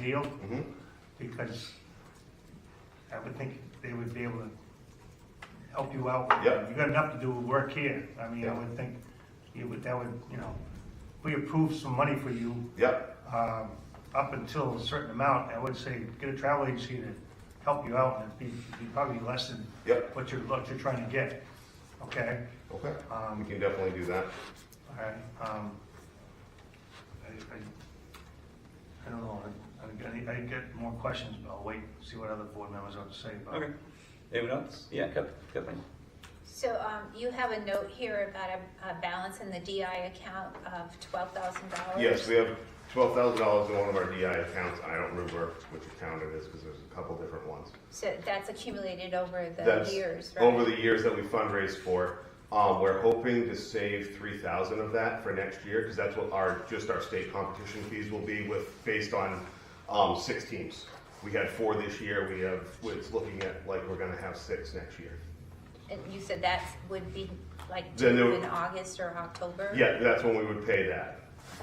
deal, Mhm. because I would think they would be able to help you out. with Yep. You got enough to do with work here, I mean, I Yeah. would think, it would, that would, you know, we approve some money for you, Yep, um, up until a certain amount, I would say, get a travel agency to help you out, and it'd be, it'd be probably less than Yep. what you're, what you're trying to get, okay? okay, Um, we can definitely do that. Alright, um, I, I, I don't know, I, I, I get more questions, but I'll wait, see what other board members have to say about it. Okay. Um, Anyone else? Yeah, Kep- Kathleen. So um, you have a note here about a- a balance in the DI account of $12,000? Yes, we have twelve thousand dollars in one of our DI accounts, I don't remember which account it is, because there's a couple different ones. So that's accumulated over the That's years, right? Over the years that we fundraised for, um, we're hoping to save three thousand of that for next year, because that's what our, just our state competition fees will be with, based on, um, six teams. We had four this year, we have, it's looking at like we're gonna have six next year. And you said that would be like Then there- due in August or October? Yeah, that's when we would pay that.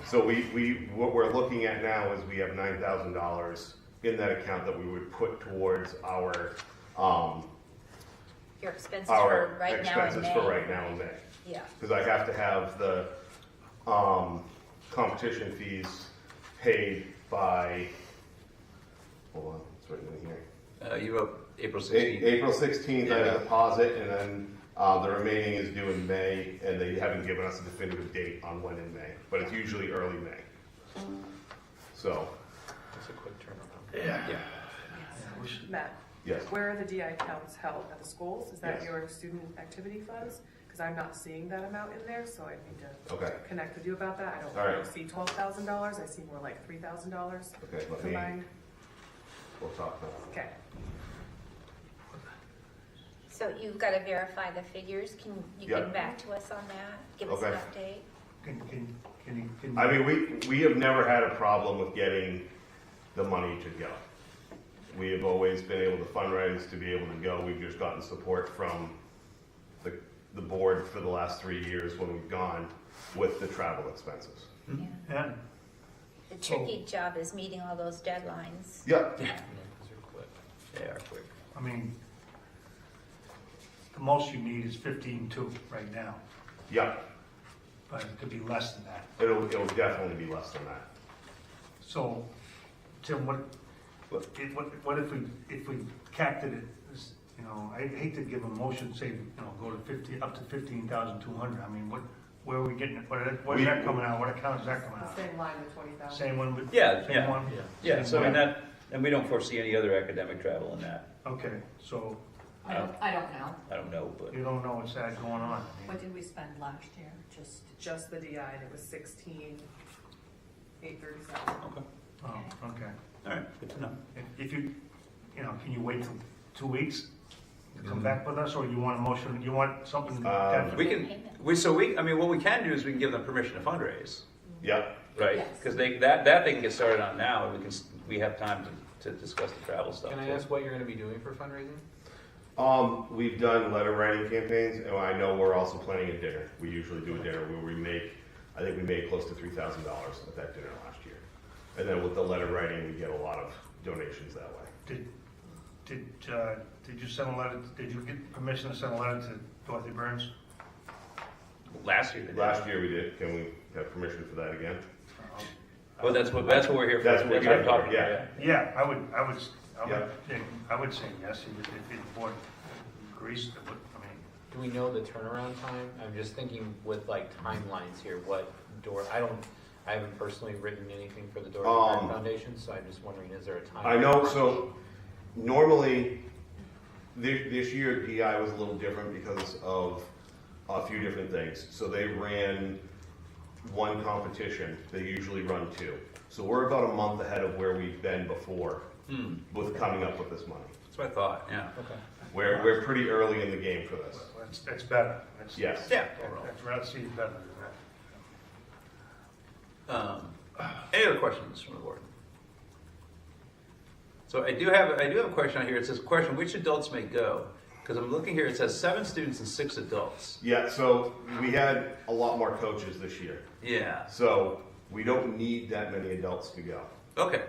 So we, we, what we're looking at now is we have nine thousand dollars in that account that we would put towards our, um, Your expenses for our right now in expenses May? for right now in May. Yeah, Cause I have to have the, um, competition fees paid by, hold on, it's written in here. Uh, you wrote April A- 16th. April sixteenth, I have Yeah. a deposit, and then, uh, the remaining is due in May, and they haven't given us a definitive date on when in May, but it's usually early May. So, That's a quick turnaround. Yeah. Yeah, we should- Matt, yes, where are the DI accounts held at the schools? Is that Yes. your student activity funds? Because I'm not seeing that amount in there, so I need to okay, connect with you about that. I don't All right. see twelve thousand dollars, I see more like three thousand dollars okay, let me, combined. we'll talk now. Okay, so you've got to verify the figures. Can you Yeah. get back to us on that? Give us an update? Can, can, can you, can I you, mean, we, we have never had a problem with getting the money to go. We have always been able to fundraise to be able to go, we've just gotten support from the, the board for the last three years when we've gone with the travel expenses. Hmm. Yeah. yeah, The tricky job is meeting all those deadlines. Yeah, Yeah. Those are quick. They are quick. I mean, the most you need is fifteen-two right now, yeah, but it could be less than that. it'll, it'll definitely be less than that. So, Tim, what, what, if- what what if we, if we capped it at, this, you know, I hate to give a motion, say, you know, go to fifty, up to fifteen thousand two hundred, I mean, what, where are we getting, it? what, where's that coming out, what account is that coming the out? same line with twenty thousand. Same one with? Yeah, same yeah, one? yeah. Yeah, so I Same mean, one? that, and we don't foresee any other academic travel in that. Okay, so I don't, Oh. I don't know. I don't know, but you don't know what's that going on, I mean, What did we spend last year? Just, Just the DI, and it was sixteen, eight thirty-seven. okay. oh, okay. All right, good to know. If- If you, you know, can you wait till two weeks to come back with us, or you want a motion, you want something Uh, definite? We can, we, so we, I mean, what we can do is we can give them permission to fundraise, Yeah, right? Yes. Because they, that, that they can get started on now, and we can, s- we have time to, to discuss the travel stuff. Can I too. ask what you're going to be doing for fundraising? um, we've done letter writing campaigns, and I know we're also planning a dinner. We usually do a dinner where we make, I think we made close to three thousand dollars at that dinner last year. And then with the letter writing, we get a lot of donations that way. Did, did, uh, did you send a letter, did you get permission to send a letter to Dorothy Burns? Last year they did. Last year we did, can we have permission for that again? Uh-huh. Well, that's what, that's what we're here for. That's what we're here I'm for, talking about, yeah. Yeah, I would, I would, I would, Yeah. yeah, I would say yes, if, if the board agrees, that would- I mean, Do we know the turnaround time? I'm just thinking with like timelines here, what door, I don't, I haven't personally written anything for the Dorothy Burton Um, Foundation, so I'm just wondering, is there a time? I know, so normally, this, this year DI was a little different because of a few different things. So they ran one competition, they usually run two. So we're about a month ahead of where we've been before Hmm, with coming up with this money. that's what I thought, yeah. Okay. We're, we're pretty early in the game for this. that's, that's better. That's- Yes. Yeah. I'd rather see it better than that. Um, any other questions from the board? So I do have, I do have a question on here. It says, question, which adults may go? Because I'm looking here, it says seven students and six adults. Yeah, so we had a lot more coaches this year. Yeah, So we don't need that many adults to go. okay,